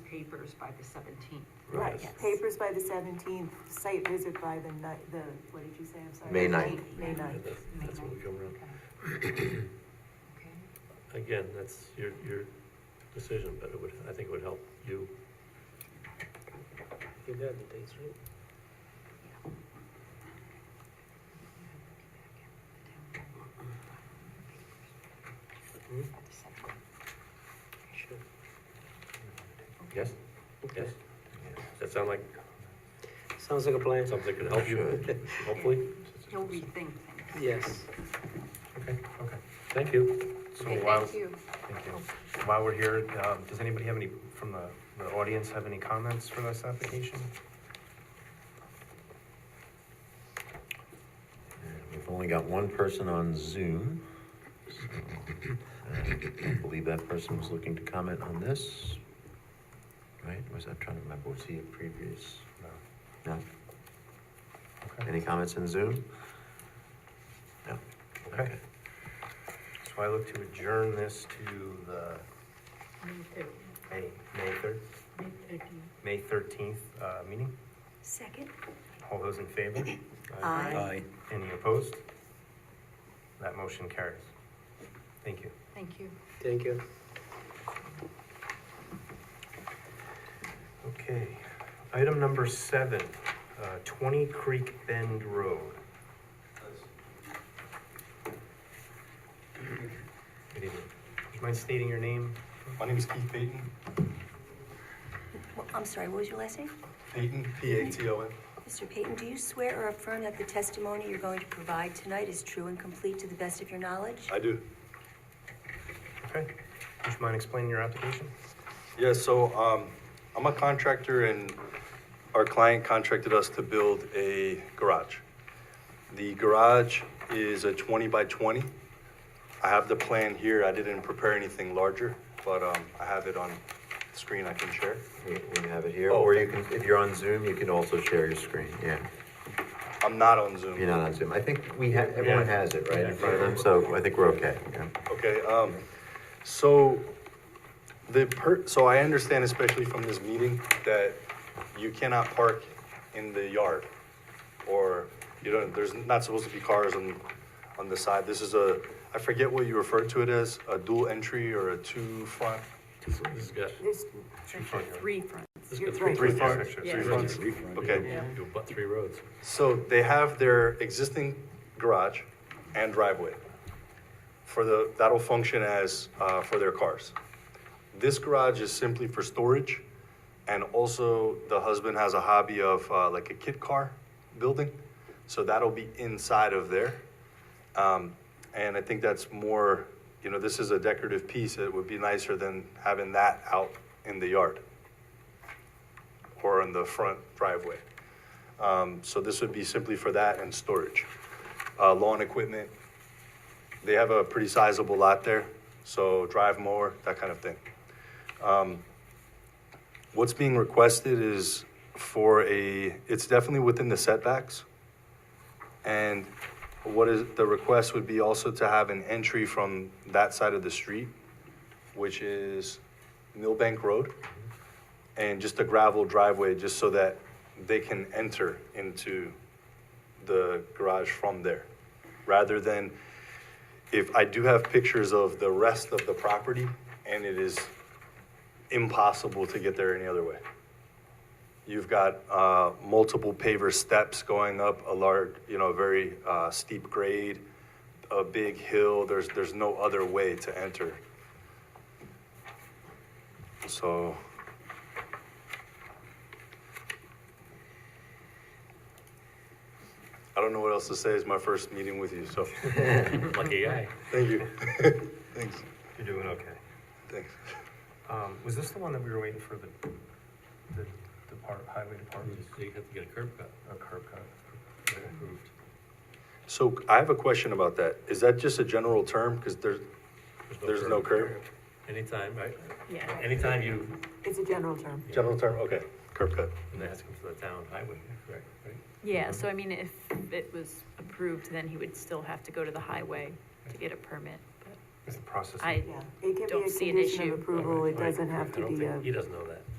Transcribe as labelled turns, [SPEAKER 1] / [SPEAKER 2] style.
[SPEAKER 1] papers by the seventeenth.
[SPEAKER 2] Right,
[SPEAKER 1] Yes.
[SPEAKER 2] papers by the seventeenth, site visit by the ni, the, what did you say, I'm sorry?
[SPEAKER 3] May ninth.
[SPEAKER 2] May ninth.
[SPEAKER 4] That's- That's when we come around.
[SPEAKER 1] Okay,
[SPEAKER 4] Again, that's your, your decision, but it would, I think it would help you.
[SPEAKER 5] You got the dates right? Sure.
[SPEAKER 4] Yes? Yes. Does that sound like
[SPEAKER 5] Sounds like a plan.
[SPEAKER 4] something that could help you, hopefully?
[SPEAKER 1] He'll rethink things.
[SPEAKER 5] Yes.
[SPEAKER 6] Okay, okay.
[SPEAKER 4] Thank you.
[SPEAKER 6] So
[SPEAKER 1] Okay,
[SPEAKER 6] while,
[SPEAKER 1] thank you.
[SPEAKER 6] thank you. While we're here, um, does anybody have any, from the, the audience, have any comments for this application?
[SPEAKER 3] And We've only got one person on Zoom. so, uh, I believe that person was looking to comment on this. Right, was, I'm trying to remember, was he a previous? No?
[SPEAKER 6] No. Okay.
[SPEAKER 3] Any comments in Zoom? No?
[SPEAKER 6] Okay. So I look to adjourn this to the May, May third, May thirteenth, uh, meeting.
[SPEAKER 1] Second?
[SPEAKER 6] All those in favor?
[SPEAKER 4] uh,
[SPEAKER 1] Aye.
[SPEAKER 6] Any opposed? That motion carries. Thank you.
[SPEAKER 1] Thank you.
[SPEAKER 5] Thank you.
[SPEAKER 6] Okay, item number seven, uh, Twenty Creek Bend Road. Good evening. Would you mind stating your name?
[SPEAKER 7] My name is Keith Payton,
[SPEAKER 8] Well, I'm sorry, what was your last name?
[SPEAKER 7] Payton, P-A-T-O-N.
[SPEAKER 8] Mr. Peyton, do you swear or affirm that the testimony you're going to provide tonight is true and complete to the best of your knowledge?
[SPEAKER 7] I do.
[SPEAKER 6] Okay, would you mind explaining your application?
[SPEAKER 7] Yeah, so um, I'm a contractor and our client contracted us to build a garage. The garage is a 20 by 20. I have the plan here. I didn't prepare anything larger, but um, I have it on screen I can share.
[SPEAKER 3] You you have it here,
[SPEAKER 7] Oh,
[SPEAKER 3] or you can, if you're on Zoom, you can also share your screen, yeah.
[SPEAKER 7] I'm not on
[SPEAKER 3] If
[SPEAKER 7] Zoom.
[SPEAKER 3] You're not on Zoom, I think we have, everyone
[SPEAKER 4] Yeah.
[SPEAKER 3] has it right in front of them, so I think we're okay, yeah.
[SPEAKER 7] Okay, um, so the per, so I understand especially from this meeting that you cannot park in the yard. Or, you know, there's not supposed to be cars on, on the side. This is a, I forget what you refer to it as, a dual entry or a two front?
[SPEAKER 4] This guy,
[SPEAKER 2] There's,
[SPEAKER 1] Three front.
[SPEAKER 4] this
[SPEAKER 2] You're
[SPEAKER 4] guy's
[SPEAKER 2] right.
[SPEAKER 7] Three
[SPEAKER 4] pretty far.
[SPEAKER 7] fronts, three fronts. Okay,
[SPEAKER 4] You butt three roads.
[SPEAKER 7] so they have their existing garage and driveway for the, that'll function as, uh, for their cars. This garage is simply for storage, and also the husband has a hobby of, uh, like a kit car building, so that'll be inside of there. Um, and I think that's more, you know, this is a decorative piece, it would be nicer than having that out in the yard or in the front driveway. Um, so this would be simply for that and storage. Uh, lawn equipment, they have a pretty sizable lot there, so drive mower, that kind of thing. Um, What's being requested is for a, it's definitely within the setbacks. And what is, the request would be also to have an entry from that side of the street, which is Millbank Road and just a gravel driveway just so that they can enter into the garage from there. Rather than, if I do have pictures of the rest of the property and it is impossible to get there any other way. You've got uh, multiple paver steps going up a large, you know, very uh, steep grade, a big hill. There's, there's no other way to enter. So I don't know what else to say. It's my first meeting with you, so
[SPEAKER 4] Lucky guy.
[SPEAKER 7] thank you. Thanks.
[SPEAKER 6] You're doing okay.
[SPEAKER 7] Thanks.
[SPEAKER 6] Um, was this the one that we were waiting for the, the depart, highway department,
[SPEAKER 4] You have to get a curb cut.
[SPEAKER 6] a curb cut?
[SPEAKER 4] Get approved.
[SPEAKER 7] So I have a question about that. Is that just a general term? Because there's, there's no curb?
[SPEAKER 4] Anytime, right?
[SPEAKER 1] Yeah.
[SPEAKER 4] Anytime you,
[SPEAKER 2] it's a general term.
[SPEAKER 7] General term, okay. Curb cut.
[SPEAKER 4] and that has to come from the town highway, correct, right?
[SPEAKER 9] Yeah, so I mean, if it was approved, then he would still have to go to the highway to get a permit, but
[SPEAKER 6] Is the process?
[SPEAKER 9] I,
[SPEAKER 2] Yeah, it can
[SPEAKER 9] Don't
[SPEAKER 2] be a
[SPEAKER 9] see an
[SPEAKER 2] condition
[SPEAKER 9] issue.
[SPEAKER 2] of approval, it doesn't have
[SPEAKER 4] I
[SPEAKER 2] to
[SPEAKER 4] don't
[SPEAKER 2] be
[SPEAKER 4] think-
[SPEAKER 2] a,
[SPEAKER 4] He doesn't know that.